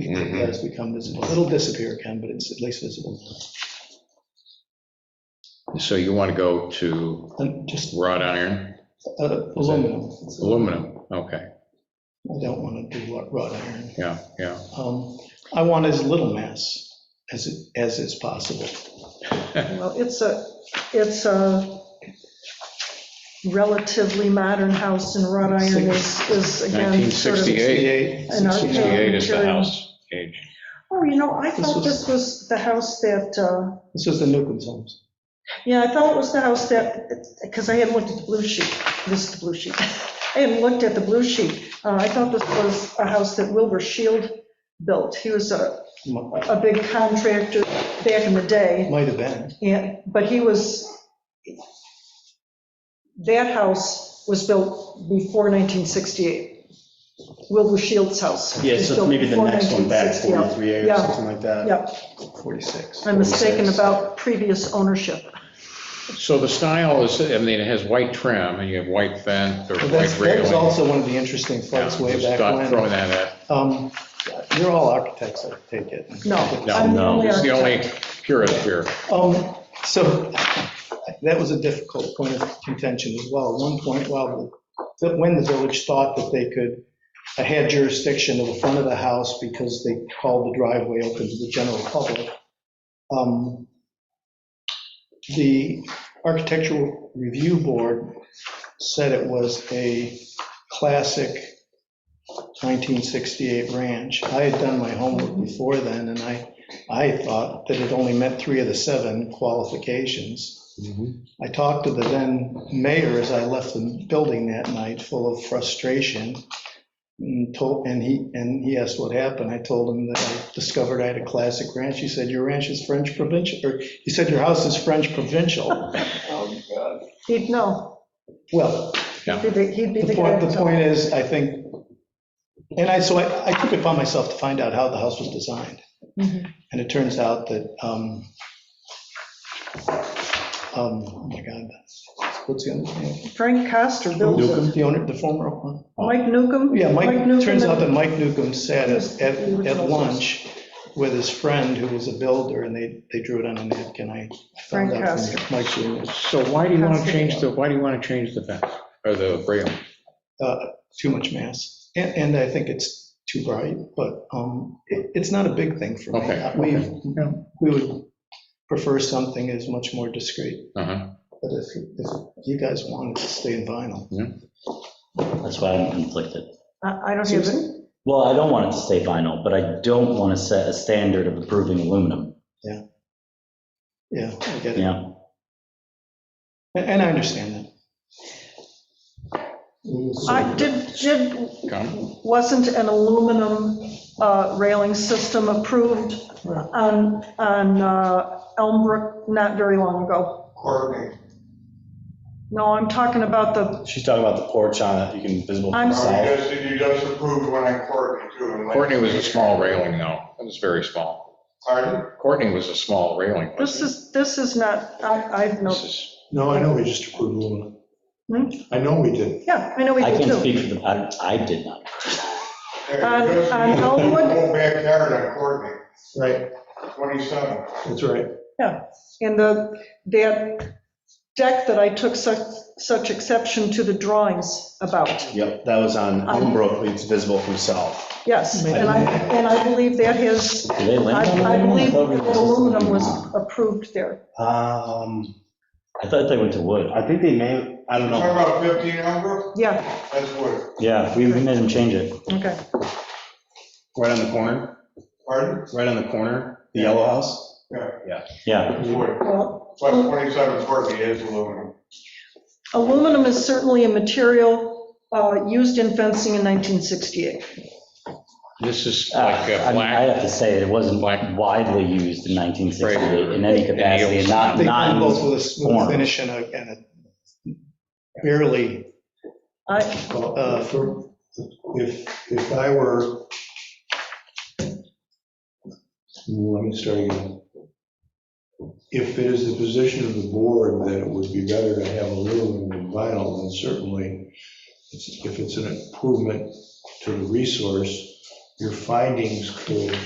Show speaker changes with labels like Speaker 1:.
Speaker 1: that
Speaker 2: Mhm.
Speaker 1: has become visible. It'll disappear, Ken, but it's at least visible.
Speaker 2: So you want to go to
Speaker 1: And just
Speaker 2: wrought iron,
Speaker 1: uh, aluminum.
Speaker 2: aluminum, okay,
Speaker 1: I don't want to do wrought- wrought iron.
Speaker 2: yeah, yeah.
Speaker 1: Um, I want as little mass as, it- as is possible.
Speaker 3: Well, it's a, it's a relatively modern house and wrought iron is, is again sort of.
Speaker 2: 1968.
Speaker 3: An arcade.
Speaker 2: 68
Speaker 1: 68.
Speaker 2: is the
Speaker 3: Sure.
Speaker 2: house age.
Speaker 3: Oh, you know, I thought
Speaker 1: was-
Speaker 3: this was the house that, uh,
Speaker 1: This is the Newcomb's homes.
Speaker 3: yeah, I thought it was the house that, because I hadn't looked at the blue sheet, this is the blue sheet. I hadn't looked at the blue sheet. Uh, I thought this was a house that Wilbur Shield built. He was a,
Speaker 1: Might
Speaker 3: a big contractor back in the day.
Speaker 1: might have been.
Speaker 3: Yeah, but he was, that house was built before 1968. Wilbur Shields' house.
Speaker 4: Yeah,
Speaker 3: was
Speaker 4: so
Speaker 3: built
Speaker 4: maybe the
Speaker 3: before
Speaker 4: next one back,
Speaker 3: 1968.
Speaker 4: 43A or
Speaker 3: Yeah.
Speaker 4: something like that.
Speaker 3: Yep,
Speaker 1: 46.
Speaker 3: I'm mistaken
Speaker 4: 46.
Speaker 3: about previous ownership.
Speaker 2: So the style is, I mean, it has white trim and you have white vent or
Speaker 1: But
Speaker 2: white
Speaker 1: That's, that was
Speaker 2: railing.
Speaker 1: also one of the interesting
Speaker 2: Yeah,
Speaker 1: fights way
Speaker 2: just
Speaker 1: back
Speaker 2: thought- Throw
Speaker 1: when.
Speaker 2: that at,
Speaker 1: Um, You're all architects, I take it.
Speaker 3: No, I'm the
Speaker 2: no,
Speaker 3: only
Speaker 2: it's the only
Speaker 3: architect.
Speaker 2: purist here.
Speaker 1: Um, So that was a difficult point of contention as well. At one point, well, that when the village thought that they could, uh, had jurisdiction of the front of the house because they called the driveway open to the general public, um, the Architectural Review Board said it was a classic 1968 ranch. I had done my homework before then, and I I thought that it only met three of the seven qualifications. I talked to the then mayor as I left the building that night, full of frustration, and told, and he, and he asked what happened. I told him that I discovered I had a classic ranch. He said, your ranch is French provincial, or he said, your house is French provincial.
Speaker 3: He'd know.
Speaker 1: Well,
Speaker 3: He'd be- he'd be
Speaker 1: the
Speaker 3: the guy.
Speaker 1: point, the
Speaker 3: to-
Speaker 1: point is, I think, and I, so I, I took it upon myself to find out how the house was designed.
Speaker 3: Mhm.
Speaker 1: And it turns out that, um, um, oh my God, what's the other name?
Speaker 3: Frank Coster built it.
Speaker 1: The owner, the former, one?
Speaker 3: Mike Newcomb?
Speaker 1: yeah, Mike,
Speaker 3: Newcomb
Speaker 1: turns out
Speaker 3: and-
Speaker 1: that Mike Newcomb sat at, at at lunch with his friend who was a builder, and they, they drew it on a napkin. I found
Speaker 3: Frank
Speaker 1: out
Speaker 3: Castor.
Speaker 1: from Mike's room,
Speaker 2: So why do you want to change the, why do you want to change the vent or the railing?
Speaker 1: uh, too much mass. And, and I think it's too bright, but, um, it, it's not a big thing for me.
Speaker 2: Okay, okay.
Speaker 1: We, we would prefer something as much more discreet.
Speaker 2: Uh-huh.
Speaker 1: But if, if you guys wanted to stay in vinyl,
Speaker 5: That's why I'm conflicted.
Speaker 3: I I don't have, it.
Speaker 1: Susan?
Speaker 5: Well, I don't want it to stay vinyl, but I don't want to set a standard of approving aluminum,
Speaker 1: Yeah, I get
Speaker 5: you
Speaker 1: it.
Speaker 5: know?
Speaker 1: And and I understand that.
Speaker 3: I did, did
Speaker 2: Come.
Speaker 3: wasn't an aluminum uh, railing system approved on, on uh, Elmbrook not very long ago. No, I'm talking about the,
Speaker 4: She's talking about the porch on it, you can visible from
Speaker 3: I'm
Speaker 4: the
Speaker 3: sorry.
Speaker 4: side.
Speaker 6: You just, you just approved one on Courtney too. and like-
Speaker 2: Courtney was a small railing though, it was very small.
Speaker 6: Pardon?
Speaker 2: Courtney was a small railing.
Speaker 3: this
Speaker 2: wasn't
Speaker 3: is, this is not, I, I've
Speaker 2: it?
Speaker 3: no,
Speaker 2: This is,
Speaker 7: No, I know we just approved aluminum.
Speaker 3: Hmm?
Speaker 7: I know we did.
Speaker 3: yeah, I know we
Speaker 5: I
Speaker 3: did
Speaker 5: can't
Speaker 3: too.
Speaker 5: speak for the, I, I did not.
Speaker 6: Hey, you
Speaker 3: On-
Speaker 6: just-
Speaker 3: on Elmwood?
Speaker 6: Whole backyard on Courtney,
Speaker 7: Right,
Speaker 6: 27.
Speaker 7: that's right.
Speaker 3: And the, that deck that I took such, such exception to the drawings about,
Speaker 4: Yep, that was on
Speaker 3: Um,
Speaker 4: Elmbrook, it's visible from south.
Speaker 3: yes. And I, and I believe that has,
Speaker 5: Do they
Speaker 3: I
Speaker 5: lend on
Speaker 3: I
Speaker 5: aluminum?
Speaker 3: believe
Speaker 5: thought we were-
Speaker 3: aluminum was approved there.
Speaker 4: Um,
Speaker 5: I thought they went to wood.
Speaker 4: I think they may, I don't
Speaker 6: Talking
Speaker 4: know.
Speaker 6: about 15 number,
Speaker 3: Yeah,
Speaker 6: that's wood.
Speaker 5: Yeah, we we made them change it.
Speaker 3: okay.
Speaker 4: Right on the corner,
Speaker 6: Pardon?
Speaker 4: right on the corner, the yellow house?
Speaker 5: Yeah,
Speaker 6: That's wood.
Speaker 3: Well,
Speaker 6: Plus 27 Courtney is aluminum.
Speaker 3: Aluminum is certainly a material uh, used in fencing in 1968.
Speaker 2: this is
Speaker 5: Uh,
Speaker 2: like
Speaker 5: I
Speaker 2: a
Speaker 5: mean, I
Speaker 2: black,
Speaker 5: have to say, it wasn't
Speaker 2: black-
Speaker 5: widely used in 1968 in any
Speaker 2: Right.
Speaker 5: capacity, and not,
Speaker 1: They come
Speaker 5: not,
Speaker 1: both
Speaker 5: in-
Speaker 1: with a smooth
Speaker 5: form.
Speaker 1: finish and a, and a barely,
Speaker 3: I,
Speaker 7: Well,
Speaker 1: Uh,
Speaker 7: for- If, if I were, let me start again. If it is the position of the board that it would be better to have aluminum than vinyl, then certainly, it's- if it's an improvement to the resource, your findings could